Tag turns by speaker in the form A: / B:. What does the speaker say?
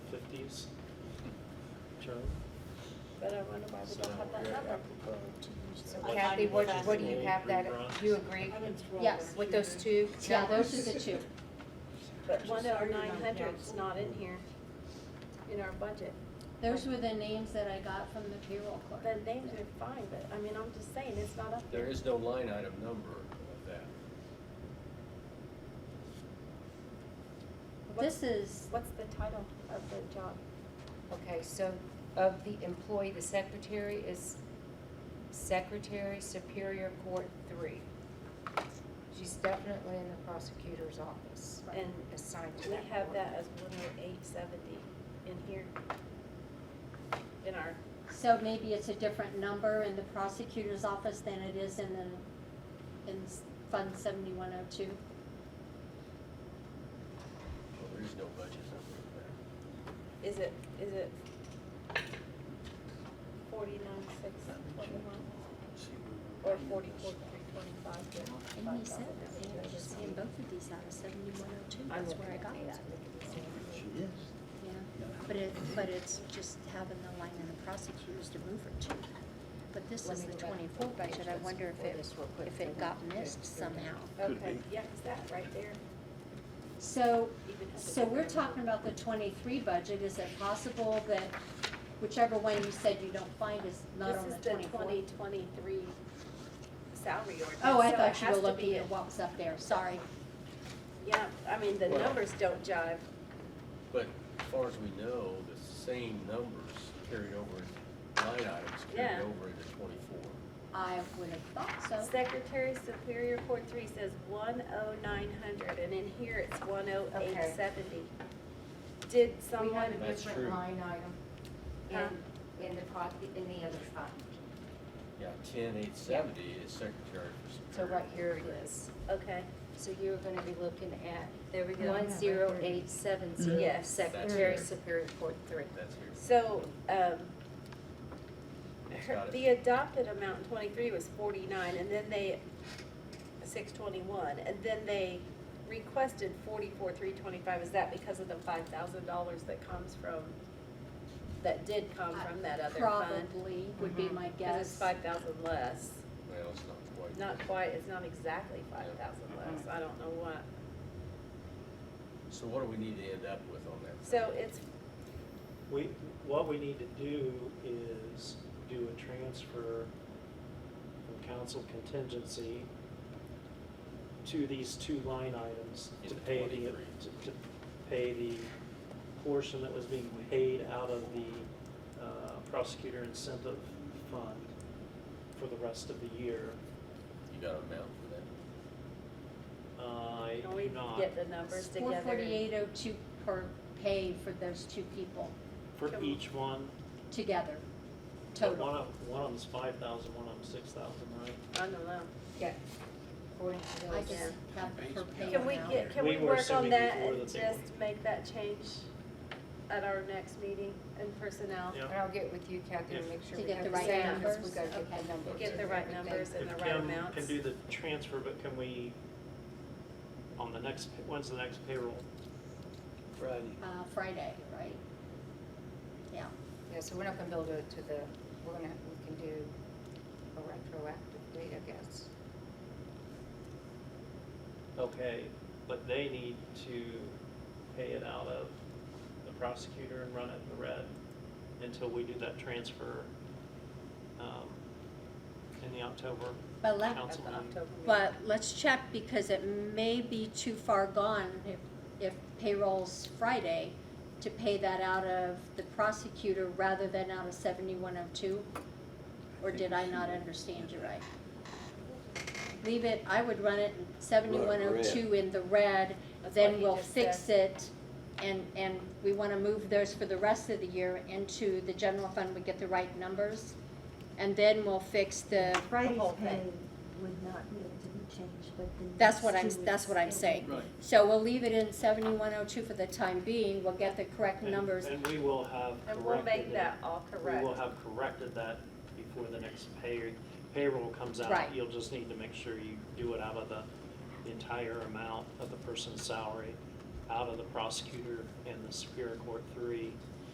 A: days.
B: Joe?
C: But I wonder why we
B: So
C: don't have
B: we're
C: that number.
B: apropos to use
C: So
B: that.
C: what
D: Kathy,
C: time
D: what,
C: is
D: what do
C: that?
D: you have that, do you agree
E: Yes.
D: with those two
E: Yeah, those
D: numbers?
E: are the two.
C: But one oh nine hundred's not in here, in our budget.
E: Those were the names that I got from the payroll clerk.
C: The names are fine, but I mean, I'm just saying, it's not up
B: There
C: there.
B: is no line item number of that.
E: This is,
C: What's the title of the job?
D: Okay, so of the employee, the secretary is Secretary Superior Court Three. She's definitely in the prosecutor's office
C: And
D: and assigned to
C: we
D: that
C: have
D: court.
C: that as one oh eight seventy in here. In our,
E: so maybe it's a different number in the prosecutor's office than it is in the, in s- Fund seventy-one oh two.
B: Well, there is no budget number
C: is it, is it forty-nine six twenty-one or forty-four three twenty-five?
D: And he said that they were just in both
E: of these out of seventy-one oh two,
D: I'm looking at these with the same-
F: Yes.
G: Yeah, but it, but it's just having the line in the prosecutors to move her to. But this
D: Let
G: is
D: me
G: the
D: go back to the
G: twenty-four
D: page
G: budget, I
D: that's
G: wonder if
D: before
G: it,
D: this real quick.
G: if
D: Go
G: it got
D: back to
G: missed
D: the-
G: somehow.
F: Could
C: Okay,
F: be.
C: yeah, it's that right there.
E: So,
C: Even if
E: so
C: it's-
E: we're talking about the twenty-three budget, is it possible that whichever one you said you don't find is not on the
C: This is the
E: twenty-four?
C: twenty twenty-three salary ordinance.
E: Oh, I
C: so it
E: thought you
C: has
E: were
C: to
E: looking
C: be-
E: at what was up there, sorry.
C: Yeah, I mean, the
B: Well-
C: numbers don't jive.
B: But as far as we know, the same numbers carried over, in- line items
C: Yeah.
B: carried over into twenty-four.
E: I would have thought so.
C: Secretary Superior Court Three says one oh nine hundred, and in here it's one oh eight seventy. Did
D: We have
C: someone,
D: a
B: That's
D: different
B: true.
D: line
C: Huh?
D: item in, in the, pro- in the other fund.
B: Yeah, ten eight seventy is secretary for
D: So
B: Superior.
D: right here it is.
C: okay,
D: So you're gonna be looking at, there we
C: go.
D: one zero eight seven zero,
C: Yes.
D: Secretary
B: Mm-hmm. That's right.
D: Superior Court Three.
B: That's here.
C: so, um,
B: It's
C: her-
B: got it.
C: the adopted amount in twenty-three was forty-nine, and then they, six twenty-one, and then they requested forty-four, three twenty-five, is that because of the five thousand dollars that comes from, that did come from that other fund?
E: Uh, Probably would be
D: Mhm.
E: my
C: Cause it's
E: guess.
C: five thousand less.
B: Well, it's not quite.
C: Not quite, it's not exactly five thousand less,
B: Mm-hmm.
C: I don't know what.
B: So what do we need to end up with on that?
C: So it's,
B: We,
H: What we need to do is do a transfer from council contingency to these two line items to
B: Into
H: pay the,
B: 23.
H: to, to pay the portion that was being paid out of the uh, prosecutor incentive fund for the rest of the year.
B: You got an amount for that?
H: I
C: can we
H: do not,
C: get the numbers together?
E: Four forty-eight oh two per pay for those two people
H: for
C: Can we-
H: each one,
E: together,
H: but
E: total.
H: one of, one of them's five thousand, one of them's six thousand, right?
C: I don't know.
D: Yeah. According to
E: I
D: those.
E: just have the per pay
C: Can we
E: amount.
C: get, can
H: We
C: we
H: were
C: work on
H: assuming
C: that
H: before
C: and
H: that they were-
C: just make that change at our next meeting in personnel?
H: Yeah.
D: And I'll get with you, Kathy, and
H: If-
D: make sure
E: To
D: we
E: get
D: have
E: the
D: the
E: right
D: same, because we
E: numbers?
D: gotta get
E: Okay.
D: the numbers.
C: Get the
D: and
C: right
D: everything.
C: numbers and
H: If
C: the right
H: Kim
C: amounts.
H: Can do the transfer, but can we, on the next, when's the next payroll?
F: Friday.
E: Uh, Friday, right? Yeah,
D: Yeah, so we're not gonna build it to the, we're gonna, we can do a retroactive date, I guess.
H: Okay, but they need to pay it out of the prosecutor and run it in the red until we do that transfer, um, in the October
E: but let,
C: At
H: council
C: the
H: meeting.
C: October meeting?
E: but let's check because it may be too far gone if, if payroll's Friday to pay that out of the prosecutor rather than out of seventy-one oh two. Or did I not understand you right? Leave it, I would run it seventy-one oh two in the red,
C: That's what
E: then
C: he
E: we'll
C: just
E: fix
C: said.
E: it. And, and we wanna move those for the rest of the year into the general fund, we get the right numbers. And then we'll fix the,
I: Friday's
E: whole thing.
I: pay would not be able to be changed, but the.
E: that's what I'm,
I: next two
E: that's what
I: weeks,
E: I'm
I: it
E: saying.
F: Right.
E: So we'll leave it in seventy-one oh two for the time being, we'll get the correct
H: And-
E: numbers.
H: And we will have corrected
C: And we'll make
H: it.
C: that all
H: We will
C: correct.
H: have corrected that before the next pay, payroll comes out.
E: Right.
H: You'll just need to make sure you do it out of the entire amount of the person's salary, out of the prosecutor and the Superior Court three,